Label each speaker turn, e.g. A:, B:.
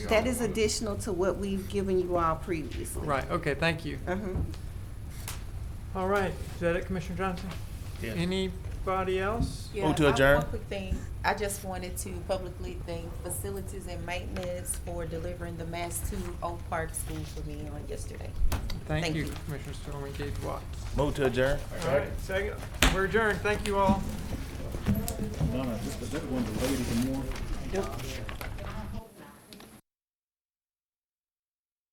A: That is additional to what we've given you all previously.
B: Right, okay, thank you.
A: Uh-huh.
B: All right, is that it, Commissioner Johnson?
C: Yes.
B: Anybody else?
D: Yeah,
C: Move to
D: I have
C: adjourn.
D: One quick thing, I just wanted to publicly thank facilities and maintenance for delivering the mass to Oak Park School for me on yesterday.
B: Thank
D: Thank
B: you,
D: you.
B: Commissioner Stormy Gates Watts.
C: Move to adjourn.
B: All right, second, we're adjourned, thank you all.
E: Donna, is that one the lady from Moore?